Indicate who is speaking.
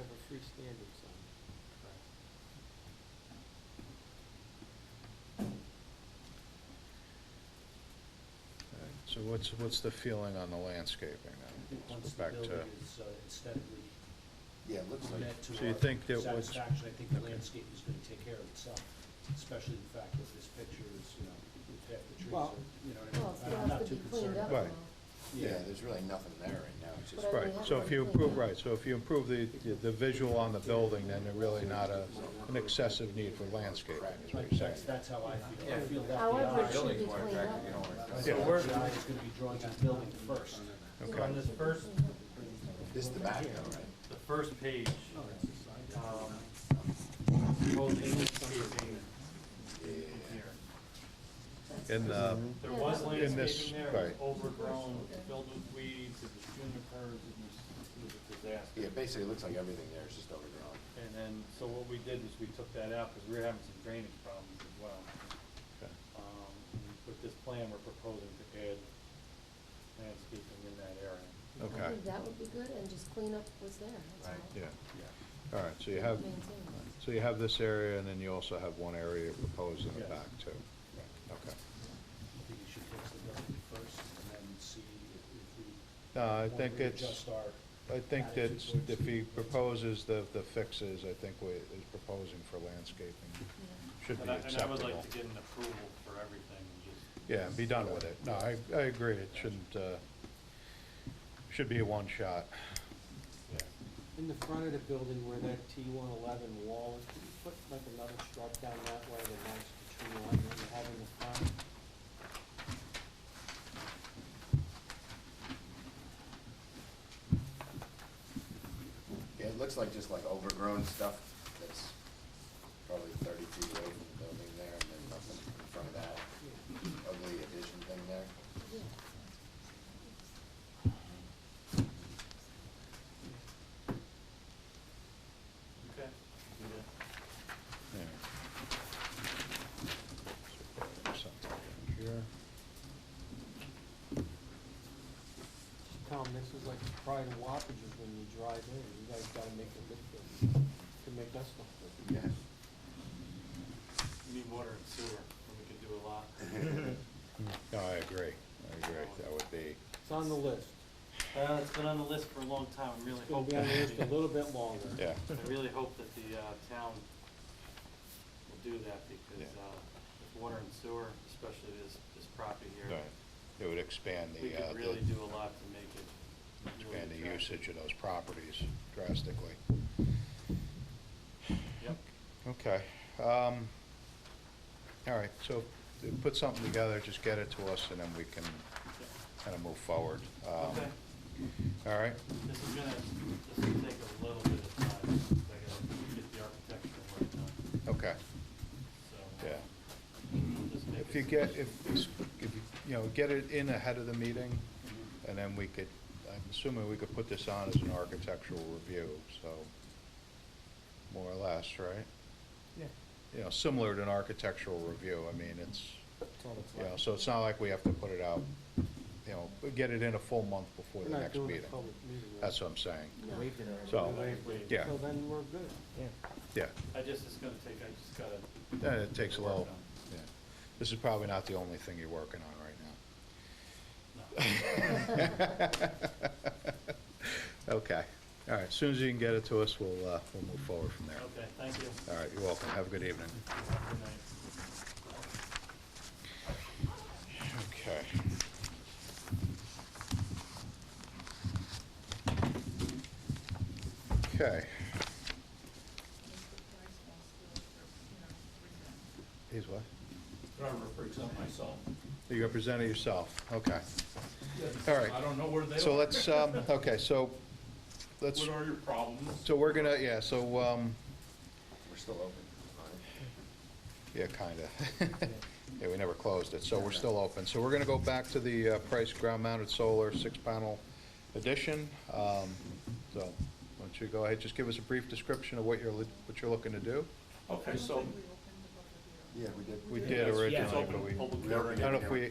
Speaker 1: standing sign.
Speaker 2: Alright, So what's, what's the feeling on the landscaping now?
Speaker 3: Once
Speaker 2: Let's
Speaker 3: the
Speaker 2: go back to-
Speaker 3: building is uh, aesthetically
Speaker 4: Yeah, it looks like,
Speaker 3: met to
Speaker 2: So you
Speaker 3: our
Speaker 2: think that what's-
Speaker 3: satisfaction, I think the
Speaker 2: okay.
Speaker 3: landscape is gonna take care of itself, especially the fact that this picture is, you know, with half the trees
Speaker 1: Well-
Speaker 3: are, you know,
Speaker 5: Well,
Speaker 3: what I
Speaker 5: it
Speaker 3: mean?
Speaker 5: still
Speaker 3: I'm not
Speaker 5: has to
Speaker 3: too
Speaker 5: be cleaned
Speaker 3: concerned.
Speaker 5: up.
Speaker 2: Right.
Speaker 5: though.
Speaker 4: yeah, there's really nothing there right now, it's just.
Speaker 5: But I
Speaker 2: Right, so if you improve, right, so if you improve the, the visual on the building, then there's really not a, an excessive need for landscaping, is what
Speaker 3: Like,
Speaker 2: you're saying.
Speaker 3: that's, that's how I feel, I feel that
Speaker 5: However,
Speaker 3: the
Speaker 5: it
Speaker 3: eye,
Speaker 5: should be cleaned up.
Speaker 2: Yeah.
Speaker 3: so where the eye is gonna be drawing that building first.
Speaker 5: Yeah,
Speaker 2: Okay,
Speaker 5: it
Speaker 6: this
Speaker 5: should be
Speaker 6: first-
Speaker 5: cleaned up.
Speaker 4: This is the back though, right?
Speaker 6: The first page, um, proposed landscaping here.
Speaker 2: in the,
Speaker 6: There was
Speaker 2: In this-
Speaker 6: landscaping there, it
Speaker 2: right.
Speaker 6: was overgrown, filled with weeds, it was junipers, it was, it was a
Speaker 4: Yeah,
Speaker 6: disaster.
Speaker 4: basically, it looks like everything there is just overgrown.
Speaker 6: And then, so what we did is we took that out because we were having some drainage problems as well.
Speaker 2: okay.
Speaker 6: Um, and With this plan, we're proposing to add landscaping in that area.
Speaker 5: I
Speaker 2: okay,
Speaker 5: think that would be good, and just clean up what's there, that's all.
Speaker 6: Right.
Speaker 2: yeah,
Speaker 6: Yeah.
Speaker 2: all right, so you have,
Speaker 5: Maintain it.
Speaker 2: so you have this area, and then you also have one area you're proposing in the
Speaker 6: Yes.
Speaker 2: back too. Okay.
Speaker 3: I think you should fix the building first and then see if if we.
Speaker 2: No, I
Speaker 3: want to
Speaker 2: think it's,
Speaker 3: readjust our-
Speaker 2: I think that
Speaker 3: attitude towards
Speaker 2: if he
Speaker 3: the-
Speaker 2: proposes the, the fixes, I think what he's proposing for landscaping
Speaker 5: Yeah.
Speaker 2: should be
Speaker 6: And I- And I would
Speaker 2: acceptable.
Speaker 6: like to get an approval for everything and just.
Speaker 2: Yeah, and be done with it. No, I, I agree, it shouldn't, uh, should be a one-shot.
Speaker 1: In the front of the building where that T one eleven wall is, could you put like another stripe down that way that matches the tree line that you have in the front?
Speaker 4: Yeah, it looks like just like overgrown stuff that's probably thirty feet away from the building there, and then nothing in front of that ugly addition thing there.
Speaker 5: Yeah.
Speaker 6: Okay.
Speaker 2: Yeah. Something here.
Speaker 1: Tom, this is like the pride of Wapages when you drive in, you guys gotta make it look good, to make us look good.
Speaker 4: Yeah.
Speaker 6: We Need water and sewer, and we could do a lot.
Speaker 2: No, I agree, I agree, that would be,
Speaker 1: It's on the list,
Speaker 6: Uh, it's been on the list for a long time, I'm really
Speaker 1: it's gonna be
Speaker 6: hoping.
Speaker 1: on the list a little bit longer.
Speaker 2: yeah,
Speaker 6: I really hope that the, uh, town will do that because,
Speaker 2: Yeah.
Speaker 6: uh, with water and sewer, especially this, this property
Speaker 2: no,
Speaker 6: here,
Speaker 2: it would expand
Speaker 6: we
Speaker 2: the, uh,
Speaker 6: could really
Speaker 2: the-
Speaker 6: do a lot to make it. really
Speaker 2: expand the
Speaker 6: attractive.
Speaker 2: usage of those properties drastically.
Speaker 6: Yep.
Speaker 2: Okay, um, all right, so put something together, just get it to us, and then we can kind of move forward. Um,
Speaker 6: Okay,
Speaker 2: All right,
Speaker 6: this is gonna, this will take a little bit of time, 'cause I gotta get the architectural work done,
Speaker 2: okay,
Speaker 6: so.
Speaker 2: yeah.
Speaker 6: we'll just make
Speaker 2: If
Speaker 6: it-
Speaker 2: you get, if, if, you you know, get it in ahead of the meeting, and then we could, I'm assuming we could put this on as an architectural review, so, more or less, right?
Speaker 1: Yeah.
Speaker 2: You know, similar to an architectural review, I mean, it's,
Speaker 1: That's all it's
Speaker 2: you know,
Speaker 1: like.
Speaker 2: so it's not like we have to put it out, you know, but get it in a full month before
Speaker 1: We're
Speaker 2: the
Speaker 1: not
Speaker 2: next
Speaker 1: doing
Speaker 2: meeting.
Speaker 1: a public meeting. right?
Speaker 2: That's what I'm saying,
Speaker 5: No.
Speaker 2: so, yeah,
Speaker 1: So then we're good.
Speaker 2: yeah,
Speaker 6: I just, it's gonna take, I just gotta.
Speaker 2: Uh, it takes a
Speaker 6: work
Speaker 2: little,
Speaker 6: on it.
Speaker 2: yeah. This is probably not the only thing you're working on right now.
Speaker 6: No.
Speaker 2: Okay, all right, as soon as you can get it to us, we'll, uh, we'll move forward from there.
Speaker 6: Okay, thank you.
Speaker 2: All right, you're welcome, have a good evening.
Speaker 6: Have a good night.
Speaker 2: Okay. Okay, he's what?
Speaker 7: Driver represent myself.
Speaker 2: You representing yourself, okay. All
Speaker 7: I
Speaker 2: right,
Speaker 7: don't know where they are.
Speaker 2: so let's, um, okay, so, let's,
Speaker 7: What are your problems?
Speaker 2: so we're gonna, yeah, so, um,
Speaker 4: We're still open, right?
Speaker 2: Yeah, kinda. Yeah, we never closed it, so we're still open. So we're gonna go back to the uh, Price ground mounted solar six panel edition. Um, So, why don't you go ahead, just give us a brief description of what you're, li- what you're looking to do?
Speaker 7: Okay, so
Speaker 4: Yeah, we did.
Speaker 2: We did
Speaker 7: Yes, yes. Open
Speaker 2: originally, but we,
Speaker 7: public
Speaker 2: I don't know if we